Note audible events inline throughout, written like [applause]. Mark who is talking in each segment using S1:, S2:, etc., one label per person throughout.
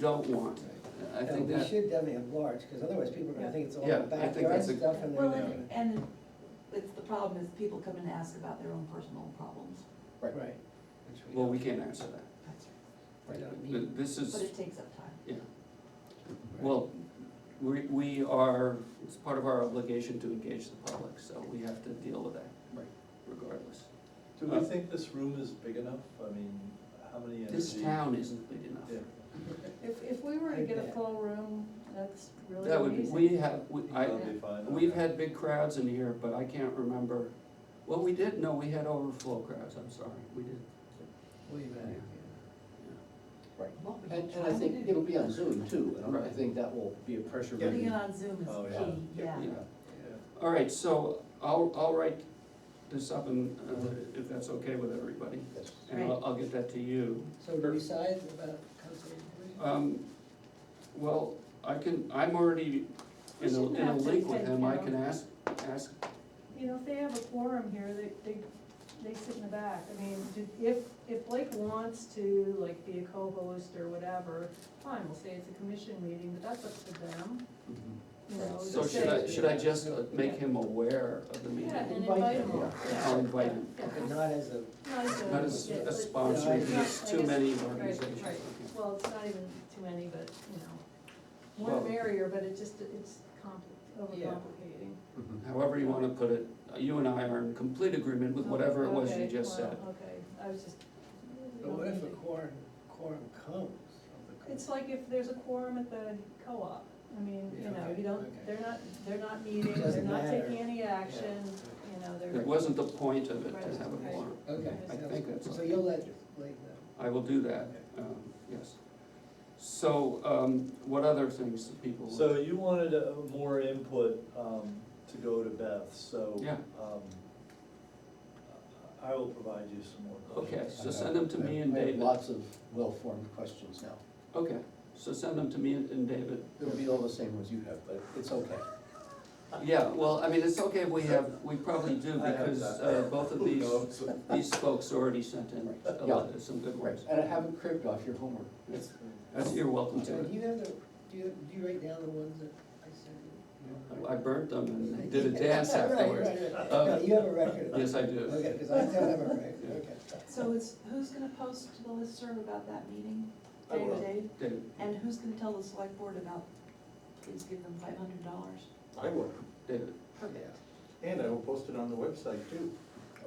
S1: don't want. I
S2: No,
S1: think
S2: We
S1: that,
S2: should definitely have large, because otherwise people are gonna think it's all
S1: Yeah, I think
S2: backyard
S1: that's a-
S2: stuff and uh,
S3: Well,
S2: they're
S3: and,
S2: gonna-
S3: and it's, the problem is people come and ask about their own personal problems.
S2: Right. Which
S1: well, we
S2: don't-
S1: can't answer that.
S3: That's right.
S2: we don't
S1: Th-
S2: need.
S1: This
S3: But
S1: is,
S3: it takes up time.
S1: yeah,
S2: Right.
S1: well, we, we are, it's part of our obligation to engage the public, so we have to deal with that
S2: Right.
S1: regardless.
S4: Do
S1: Uh,
S4: we think this room is big enough? I mean, how many energy?
S1: This town isn't big enough.
S4: Yeah.
S5: If, if we were to get a full room, that's really
S1: That would, be-
S5: amazing.
S1: we have, we, I,
S4: That'll be fine.
S1: we've had big crowds in here, but I can't remember, well, we did, no, we had overflow crowds, I'm sorry, we did.
S2: Leave that,
S1: Yeah.
S2: yeah.
S6: Right.
S3: What we
S6: And,
S3: try
S6: and I
S3: to
S6: think
S3: do-
S6: it'll be on Zoom too, and I
S1: Right.
S6: think that will be a pressure.
S4: Yeah.
S3: Putting it
S6: relief.
S3: on Zoom
S4: Oh,
S3: is
S4: yeah.
S3: key, yeah.
S1: Yeah. All right, so I'll, I'll write this up and, uh, if that's okay with everybody,
S6: That's-
S1: and I'll, I'll get that to you.
S2: So do we decide about conservation?
S1: Um, well, I can, I'm already in a, in a link with him, I can ask, ask,
S5: You know, if they have a quorum here, they, they, they sit in the back. I mean, do- if, if Blake wants to, like, be a co-host or whatever, fine, we'll say it's a commission meeting, but that's up to them,
S6: Mm-hmm.
S5: you know.
S6: Right.
S1: so
S5: just
S1: should I,
S5: say-
S1: should I just uh, make him aware of the
S5: Yeah,
S1: meeting?
S5: and
S2: Invite
S5: invite
S2: them,
S5: them all,
S6: yeah.
S5: yeah.
S1: I'll invite them.
S5: yeah.
S2: But not as a,
S5: Not as a-
S1: Not as
S5: yeah,
S1: a
S5: but-
S1: sponsor,
S5: yeah,
S1: there's
S5: I
S1: too
S5: guess-
S1: many
S5: right,
S1: organizations.
S5: right.
S1: Okay.
S5: Well, it's not even too many, but, you know, more
S1: Well-
S5: the merrier, but it just, it's compli,
S2: Yeah.
S5: overcomplicating.
S6: Mhm.
S1: However you wanna put it, you and I are in complete agreement with whatever it was you
S5: Okay,
S1: just
S5: wow,
S1: said.
S5: Okay, I was just.
S2: but what if a quorum, quorum comes? of the co-
S5: It's like if there's a quorum at the co-op, I mean,
S2: Yeah,
S5: you know,
S2: okay,
S5: you don't,
S2: okay.
S5: they're not, they're not meeting, they're
S2: Doesn't
S5: not
S2: matter.
S5: taking any action,
S2: Yeah.
S5: you know,
S1: It
S5: they're,
S1: wasn't the point of it
S5: Right,
S1: to have a
S5: okay.
S1: quorum.
S2: Okay.
S5: I
S2: sounds
S1: think
S2: good.
S1: that's
S2: So
S1: okay.
S2: you'll let Blake know.
S1: I will do that, um, yes. So, um, what other things that people?
S4: So you wanted uh, more input um, to go to Beth, so.
S1: Yeah.
S4: um, I will provide you some more.
S1: Okay,
S4: questions.
S1: so send them to me and
S6: I have
S1: David.
S6: Lots of well-formed questions now.
S1: Okay, so send them to me and and David.
S6: It'll be all the same as you have, but it's okay.
S1: Yeah, well, I mean, it's okay if we have, we probably do
S4: I have
S1: because
S4: that.
S1: uh, both of
S4: Who [laughs]
S1: these,
S4: knows?
S1: these folks already sent in a lot- some good
S6: Right,
S1: ones.
S6: and I haven't cribbed off your homework.
S1: That's- That's, you're welcome
S2: uh, So
S1: to
S2: do
S1: it.
S2: you have the, do you, do you write down the ones that I sent you?
S1: I burnt them and did a dance
S2: [laughs] Right, right,
S1: afterwards.
S2: right.
S1: Um,
S2: No, you have a record of it.
S1: Yes, I do.
S2: Okay, because I don't have a record,
S1: Yeah.
S2: okay.
S3: So it's, who's gonna post to the listserv about that meeting?
S4: I will.
S3: Dave?
S1: David,
S3: And who's gonna tell the select board about, please give them five hundred dollars?
S7: I will,
S1: David,
S2: Yeah.
S7: and I will post it on the website too.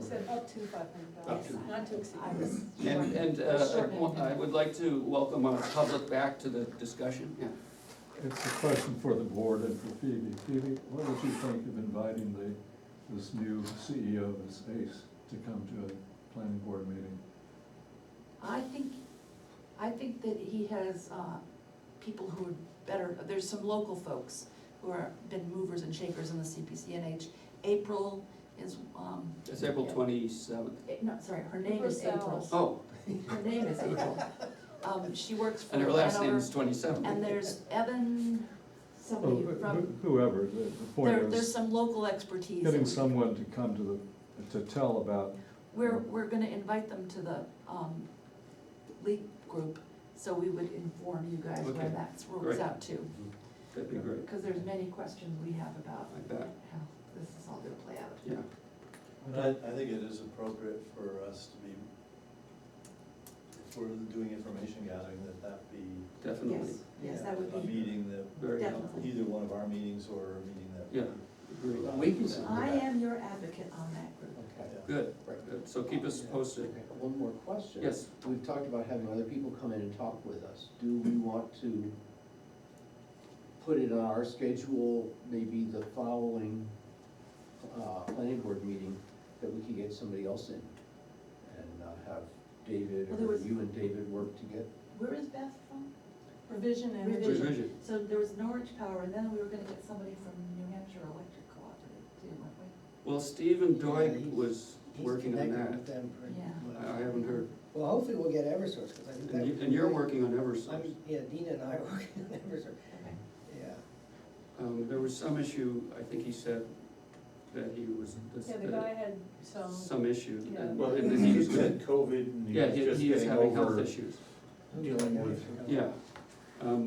S5: said up to five hundred
S7: Up
S5: dollars,
S7: to.
S5: not to exceed.
S3: I was.
S1: and, and uh, I
S3: Shorten it.
S1: wa- I would like to welcome our public back to the discussion, yeah.
S8: It's a question for the board and for Phoebe. Phoebe, what would you think of inviting the, this new CEO of this ACE to come to a planning board meeting?
S3: I think, I think that he has, uh, people who are better, there's some local folks who are, been movers and shakers in the CPCNH. April is, um,
S1: It's April twenty-seventh.
S3: eh, no, sorry, her name is
S5: April
S3: April.
S1: Oh,
S3: Her name is April.
S5: [laughs]
S3: Um, she works for
S1: and her last name
S3: Hanover.
S1: is twenty-seven.
S3: And there's Evan,
S8: Oh,
S3: somebody from,
S8: wh- Whoever, the the point
S3: there, there's
S8: is,
S3: some local expertise.
S8: getting someone to come to the, to tell about,
S3: We're, we're gonna invite them to the, um, league group, so we would inform you guys where
S1: Okay,
S3: that rolls
S1: great.
S3: out to.
S1: That'd be great,
S3: Because there's many questions we have about
S1: I bet,
S3: how this is all gonna play out.
S1: yeah.
S4: But I, I think it is appropriate for us to be, if we're doing information gathering, that that be
S1: Definitely,
S3: Yes, yes, that would
S4: a
S3: be,
S4: meeting that,
S1: very
S3: Definitely.
S1: helpful.
S4: either one of our meetings or a meeting that. we-
S1: Yeah. Agree.
S6: We can send
S3: I
S6: it back.
S3: am your advocate on that group.
S6: Okay,
S4: Yeah.
S1: Good,
S6: right.
S1: good, so keep us posted.
S6: One more question.
S1: Yes.
S6: We've talked about having other people come in and talk with us. Do we want to put it on our schedule, maybe the following, uh, planning board meeting, that we could get somebody else in? And uh, have David,
S3: Well, there
S6: or
S3: was-
S6: you and David work together?
S3: Where is Beth from?
S5: Revision and.
S3: Revision.
S1: Revision.
S3: So there was Norwich Power, and then we were gonna get somebody from New Hampshire Electric Cooperative too, weren't we?
S1: Well, Stephen
S2: Yeah,
S1: Doig
S2: he's-
S1: was
S2: He's
S1: working on
S2: connected with
S1: that.
S2: them pretty
S3: Yeah.
S1: I
S2: much.
S1: I haven't heard,
S2: Well, hopefully we'll get Eversource, because I think that.
S1: and you-
S2: would be
S1: and you're
S2: great.
S1: working on Eversource.
S2: I'm, yeah, Dina and I are working on Eversource,
S3: Okay.
S2: yeah.
S1: Um, there was some issue, I think he said that he was, this- uh,
S5: Yeah, the guy had some,
S1: some issue.
S5: Yeah.
S1: and-
S4: Well,
S1: and he was
S4: he's
S1: gonna-
S4: had COVID and he
S1: Yeah,
S4: was
S1: he,
S4: just
S1: he is
S4: getting
S1: having health
S4: over.
S1: issues,
S6: Dealing with-
S1: yeah, Um,